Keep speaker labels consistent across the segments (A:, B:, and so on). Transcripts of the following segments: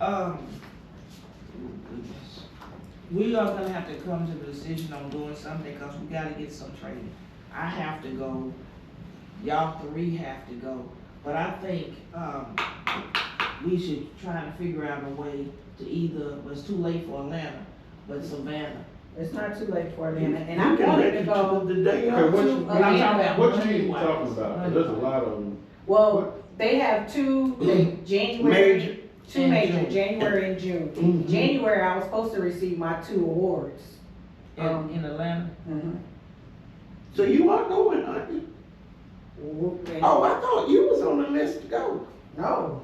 A: Um, we are gonna have to come to the decision on doing something, cause we gotta get some training. I have to go, y'all three have to go, but I think, um, we should try to figure out a way to either, well, it's too late for Atlanta, but Savannah.
B: It's not too late for Atlanta, and
C: You
B: I
C: can
B: wanted
C: make
B: to
C: it
B: go
C: The day
B: to
C: of.
D: Okay, what you-
A: But I'm
B: Atlanta.
A: talking about
D: What you even
A: money-wise.
D: talking about? There's a lot of them.
B: Well, they have two, they-
C: Major.
B: January, two
A: And
B: major,
A: June.
B: January and June.
C: Mhm.
B: January, I was supposed to receive my two awards. Um, mm-hmm.
A: In, Um, in Atlanta,
C: So you are going, aren't you? Oh, I thought you was on the list to go.
B: No,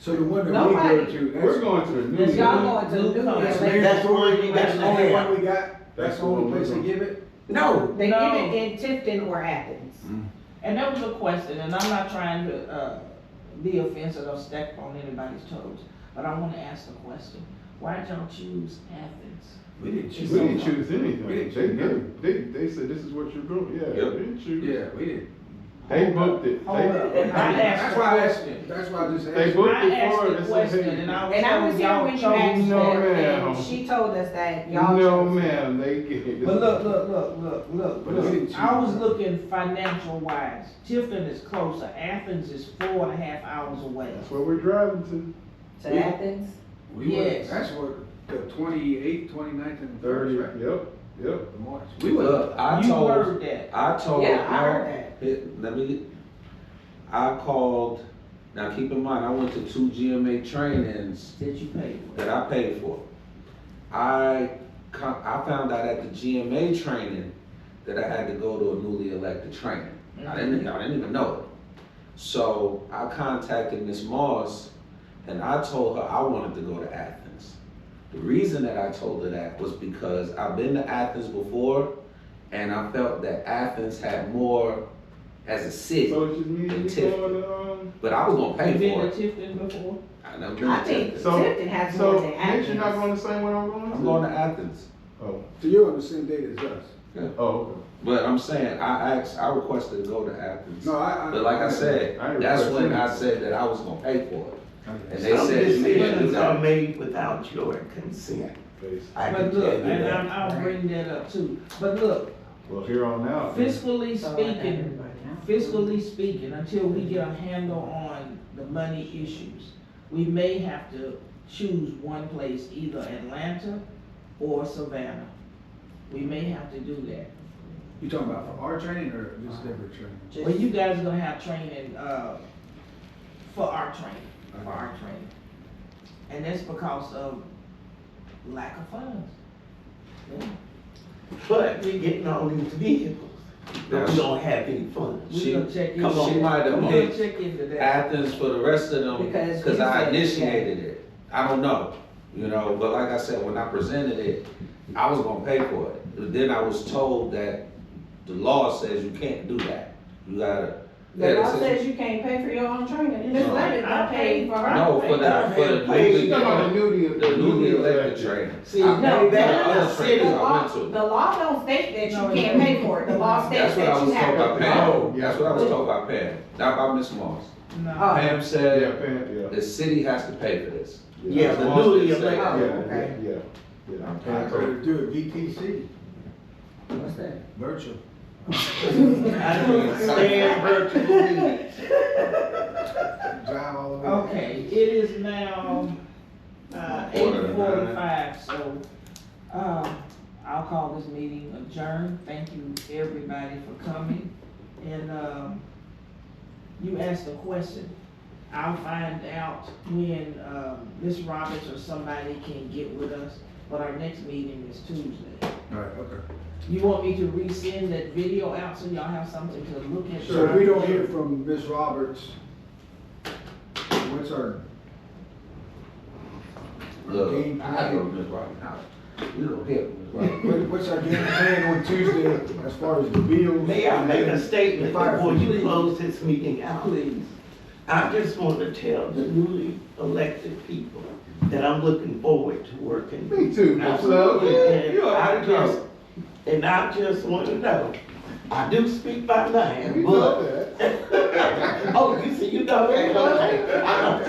E: So the one that we go
B: Nobody-
E: to,
D: We're
E: that's,
D: going to the new.
B: cause y'all
D: year.
B: going to Oh, New
A: That's
B: Year's,
C: That's the one you got
E: that's
C: to
E: the only one
C: have.
E: we got, that's the only place they give it?
C: No,
B: they give
A: No.
B: it in Tifton or Athens.
A: and that was a question, and I'm not trying to, uh, be offensive or step on anybody's toes, but I wanna ask the question, why did y'all choose Athens?
E: We didn't
D: We
A: choose
D: didn't choose anything.
E: We didn't
D: They
E: choose
D: knew. They, they said, this is what you're doing. Yeah,
C: Yep.
D: they didn't choose.
E: Yeah, we didn't.
D: They booked it.
A: Hold up.
D: They,
A: I asked
E: That's
A: the
E: why I asked,
A: question.
E: that's why I just
D: they
E: asked. you.
D: booked
A: I
D: it
A: asked
D: for
A: the
D: us. They said,
A: question, and I was
B: And I was
A: told
B: here
A: y'all
B: when you
A: chose
B: asked
D: no
B: that, and
D: ma'am.
B: she told us that y'all
D: No,
B: chose.
D: ma'am, they get.
A: But look, look, look, look, look,
E: But they didn't
A: look, I
E: choose.
A: was looking financial wise, Tifton is closer, Athens is four and a half hours away.
D: That's where we're driving to.
B: To Athens,
E: We were,
A: Yes.
E: that's what, the twenty-eighth, twenty-ninth and
D: Thirty,
E: thirty, right?
D: yep, yep.
E: The March.
F: We were, look, I
A: You
F: told,
A: heard that,
F: I
D: Oh,
F: told.
B: yeah, I heard that.
F: It- Let me, I called, now keep in mind, I went to two GMA trainings
A: that you paid for.
F: that I paid for. I, co- I found out at the GMA training that I had to go to a newly elected training. I didn't, I didn't even know it. So I contacted Miss Moss and I told her I wanted to go to Athens. The reason that I told her that was because I've been to Athens before and I felt that Athens had more as a city,
D: So it just means you
F: Tiff.
D: going to, um,
F: but I was gonna
A: You
F: pay
A: been
F: for
A: to
F: it.
A: Tifton before?
F: I never been
B: I
F: to
B: think
F: Athens.
D: So-
B: Tifton has more
D: so,
B: than
D: Nick, you're not
B: Athens.
D: going the same way I'm going to?
F: I'm going to Athens.
D: Oh,
E: So you're on the same date as us?
D: oh,
F: But I'm saying, I asked, I requested to go to Athens.
E: No, I, I.
F: But like I said,
D: I
F: that's
D: request
F: when I
D: anything.
F: said that I was gonna pay for it.
D: okay.
F: And they
C: some
F: said, you can't do
C: decisions are
F: that.
C: made without your consent.
D: Face.
C: I can
A: But
C: tell you
A: look, and
C: that.
A: I'm, I'll bring that up too, but look,
D: Well, here on out.
A: fiscally
B: So I got
A: speaking,
B: everybody now.
A: fiscally speaking, until we get a handle on the money issues, we may have to choose one place, either Atlanta or Savannah. We may have to do that.
E: You talking about for our training or just different training?
B: Just-
A: Well, you guys gonna have training, uh, for our training, for our training. And that's because of lack of funds.
C: But we getting all these vehicles, but we don't have any funds.
A: We
F: She-
A: gonna check in.
F: come on, she might have
A: We
F: moved.
A: gonna check into that.
F: Athens for the rest of them,
B: Because
F: cause
B: you
F: I
B: said-
F: initiated it. I don't know, you know, but like I said, when I presented it, I was gonna pay for it. But then I was told that the law says you can't do that. You gotta.
B: The
F: Yeah,
B: law
F: it
B: says you can't pay for your own training, and this
F: No.
B: lady got
A: I
B: paid for her.
F: No, for the, for the
C: Hey,
F: newly,
C: she
D: talking about the
F: the
D: newly,
F: newly elected trainers.
C: See,
F: I
B: No,
C: Hey,
F: paid for the
C: that-
B: no,
F: other
B: no, the
F: trainers I
B: law,
F: went to.
B: the law don't state that
A: No, it
B: you can't
A: don't.
B: pay for it, the law states
F: That's what
B: that
F: I
B: you
F: was told
B: have.
F: by Pam,
D: Oh, yeah.
F: that's what I was told by Pam, not by Miss Moss.
A: No.
B: Oh.
F: Pam
D: Yeah,
F: said,
D: Pam, yeah.
F: the city has to pay for this.
C: Yeah,
F: Miss
C: the
F: Moss
C: newly
F: did say that.
B: Oh,
D: Yeah,
B: okay.
D: yeah, yeah, yeah.
F: I'm
E: I
F: trying to-
E: could do a VTC,
B: What's that?
E: virtual.
C: I don't stand virtual meetings.
E: Drive all the way.
A: Okay, it is now, uh, eight
F: Quarter to nine.
A: forty-five, so, um, I'll call this meeting adjourned. Thank you, everybody, for coming. And, um, you asked a question. I'll find out when, um, Ms. Roberts or somebody can get with us, but our next meeting is Tuesday.
E: All right, okay.
A: You want me to resend that video out so y'all have something to look at?
E: So if we don't hear from Ms. Roberts, what's our?
F: Look, I had to go to Miss Robbie House, we don't hear from Miss Robbie.
E: What- What's our game plan on Tuesday as far as the bills?
C: May I make a statement
E: Fire
C: before you
E: please.
C: close this meeting out?
A: Please.
C: I just want to tell the newly elected people that I'm looking forward to working.
D: Me too, Miss Love.
C: And
D: You
C: I
D: already
C: just,
D: know.
C: and I just want to know, I do speak by
D: You
C: name,
D: know
C: but,
D: that.
C: oh, you see, you know that, okay? I know.